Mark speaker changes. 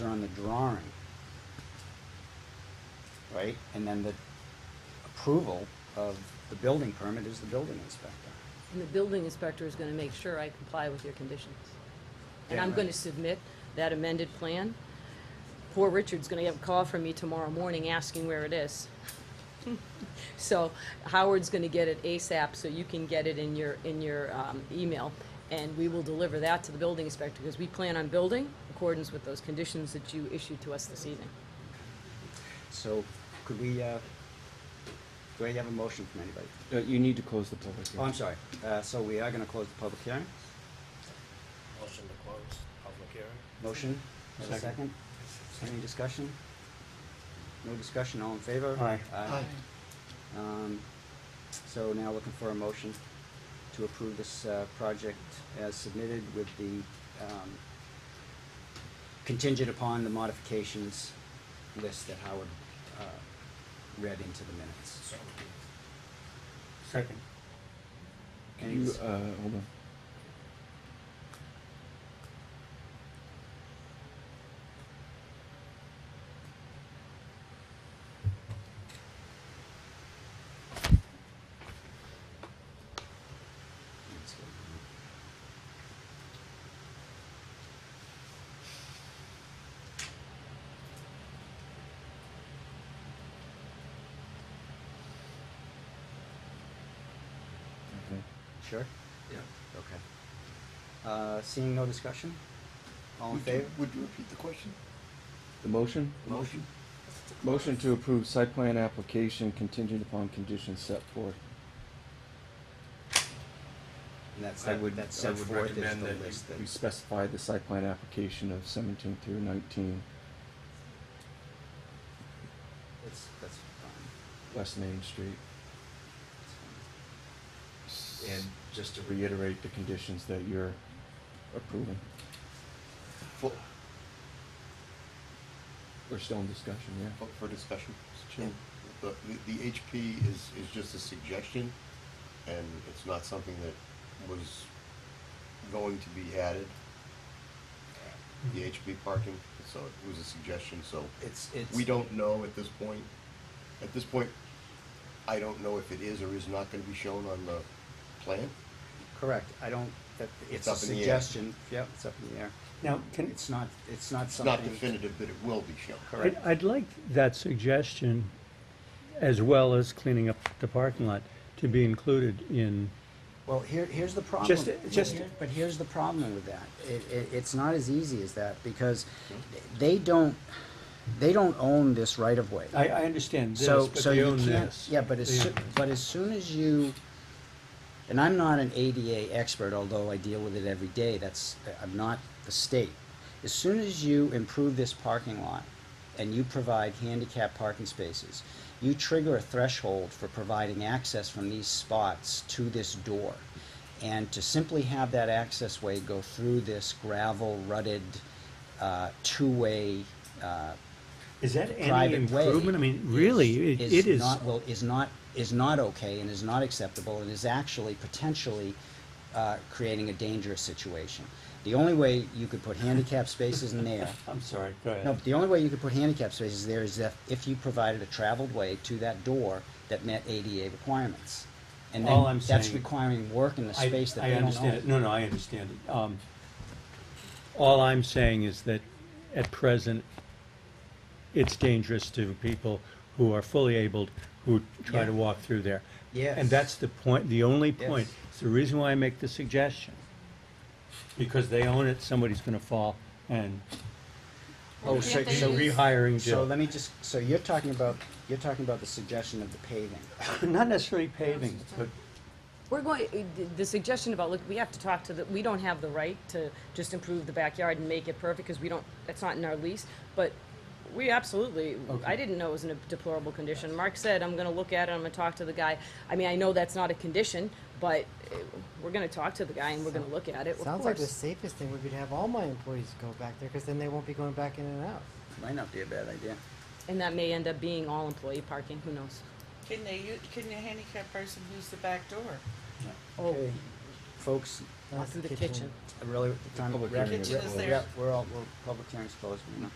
Speaker 1: are on the drawing. Right, and then the approval of the building permit is the building inspector.
Speaker 2: And the building inspector is going to make sure I comply with your conditions. And
Speaker 1: Yeah,
Speaker 2: I'm
Speaker 1: right.
Speaker 2: going to submit that amended plan. Poor Richard's going to get a call from me tomorrow morning asking where it is. So Howard's going to get it ASAP, so you can get it in your, in your um, email. And we will deliver that to the building inspector, because we plan on building in accordance with those conditions that you issued to us this evening.
Speaker 1: So could we, uh, do I have a motion from anybody?
Speaker 3: Uh, You need to close the public
Speaker 1: Oh, I'm
Speaker 3: hearing.
Speaker 1: sorry, uh, so we are gonna close the public hearing,
Speaker 4: Motion to close public hearing.
Speaker 1: motion, is there a second?
Speaker 3: Second.
Speaker 1: Any discussion? No discussion, all in favor?
Speaker 3: Aye.
Speaker 1: Aye. Um, so now looking for a motion to approve this, uh, project as submitted with the, um, contingent upon the modifications list that Howard, uh, read into the minutes.
Speaker 4: So
Speaker 5: Second.
Speaker 1: Any
Speaker 3: You,
Speaker 1: dis-
Speaker 3: uh, hold on. Okay.
Speaker 1: Sure?
Speaker 5: Yeah.
Speaker 1: Okay. Uh, seeing no discussion? All in
Speaker 5: Would you-
Speaker 1: favor?
Speaker 5: Would you repeat the question?
Speaker 3: The motion?
Speaker 5: The motion?
Speaker 3: Motion to approve site plan application contingent upon conditions set forth.
Speaker 1: And that's,
Speaker 3: I would,
Speaker 1: that's
Speaker 3: I
Speaker 1: set
Speaker 3: would
Speaker 1: forth as
Speaker 3: recommend
Speaker 1: the
Speaker 3: that
Speaker 1: list
Speaker 3: we- we
Speaker 1: that,
Speaker 3: specify the site plan application of seventeen through nineteen,
Speaker 1: it's, that's fine.
Speaker 3: West Main Street.
Speaker 1: It's fine.
Speaker 3: And just to reiterate the conditions that you're approving.
Speaker 6: For,
Speaker 3: We're still in discussion, yeah.
Speaker 6: for- for discussion, Mr.
Speaker 3: Chairman.
Speaker 6: The, the the HP is, is just a suggestion, and it's not something that was going to be added.
Speaker 1: Mm-hmm.
Speaker 6: The HP parking, so it was a suggestion, so
Speaker 1: It's, it's.
Speaker 6: we don't know at this point. At this point, I don't know if it is or is not gonna be shown on the plan.
Speaker 1: Correct, I don't, that, it's
Speaker 6: It's
Speaker 1: a
Speaker 6: up in the air.
Speaker 1: suggestion, yep, it's up in the air.
Speaker 7: Now, can,
Speaker 1: It's not, it's not
Speaker 6: It's
Speaker 1: something.
Speaker 6: not definitive that it will be shown.
Speaker 7: I'd,
Speaker 1: Correct.
Speaker 7: I'd like that suggestion, as well as cleaning up the parking lot, to be included in,
Speaker 1: Well, here, here's the problem.
Speaker 7: Just- just-
Speaker 1: Here- But here's the problem with that. It, it, it's not as easy as that because they don't, they don't own this right of way.
Speaker 7: I, I understand this,
Speaker 1: So,
Speaker 7: but
Speaker 1: so
Speaker 7: they
Speaker 1: you
Speaker 7: own
Speaker 1: can't,
Speaker 7: this.
Speaker 1: yeah, but as,
Speaker 7: They
Speaker 1: soo-
Speaker 7: own-
Speaker 1: but as soon as you, and I'm not an ADA expert, although I deal with it every day, that's, I'm not the state. As soon as you improve this parking lot and you provide handicap parking spaces, you trigger a threshold for providing access from these spots to this door. And to simply have that access way go through this gravel rutted, uh, two-way, uh,
Speaker 7: Is that any
Speaker 1: private way.
Speaker 7: improvement? I mean, really, it it is,
Speaker 1: not- Well, is not, is not okay and is not acceptable and is actually potentially uh, creating a dangerous situation. The only way you could put handicap spaces in there,
Speaker 7: I'm sorry, go
Speaker 1: no,
Speaker 7: ahead.
Speaker 1: but the only way you could put handicap spaces there is if, if you provided a traveled way to that door that met ADA requirements. And
Speaker 7: All
Speaker 1: then
Speaker 7: I'm
Speaker 1: that's
Speaker 7: saying-
Speaker 1: requiring work in the
Speaker 7: I-
Speaker 1: space that they
Speaker 7: I
Speaker 1: don't
Speaker 7: understand it.
Speaker 1: own.
Speaker 7: No, no, I understand it. Um, all I'm saying is that at present, it's dangerous to people who are fully abled, who try to
Speaker 1: Yeah.
Speaker 7: walk through there.
Speaker 1: Yes.
Speaker 7: And that's the point, the only point.
Speaker 1: Yes.
Speaker 7: It's the reason why I make the suggestion. Because they own it, somebody's gonna fall and
Speaker 1: Oh,
Speaker 2: Well,
Speaker 1: so,
Speaker 2: can't they
Speaker 1: so,
Speaker 2: use-
Speaker 7: rehiring
Speaker 1: so
Speaker 7: Jill.
Speaker 1: let me just, so you're talking about, you're talking about the suggestion of the paving.
Speaker 7: Not necessarily paving, but
Speaker 2: We're going, uh, the suggestion about, look, we have to talk to the, we don't have the right to just improve the backyard and make it perfect, because we don't, that's not in our lease, but we absolutely, I didn't know it was in a deplorable condition. Mark said, I'm gonna look at it, I'm gonna talk to the guy. I mean, I know that's not a condition, but uh, we're gonna talk to the guy and we're gonna look at it, of
Speaker 8: Sounds like the
Speaker 2: course.
Speaker 8: safest thing would be to have all my employees go back there, because then they won't be going back in and out.
Speaker 1: Might not be a bad idea.
Speaker 2: And that may end up being all employee parking, who knows?
Speaker 9: Can they, u- can the handicapped person use the back door?
Speaker 2: Oh,
Speaker 1: folks
Speaker 8: That's
Speaker 2: through the kitchen.
Speaker 1: really, the time,
Speaker 3: Public
Speaker 1: we're,
Speaker 3: hearing is
Speaker 1: we're-
Speaker 3: closed.
Speaker 1: we're- we're all, we're, public hearing's closed, you know.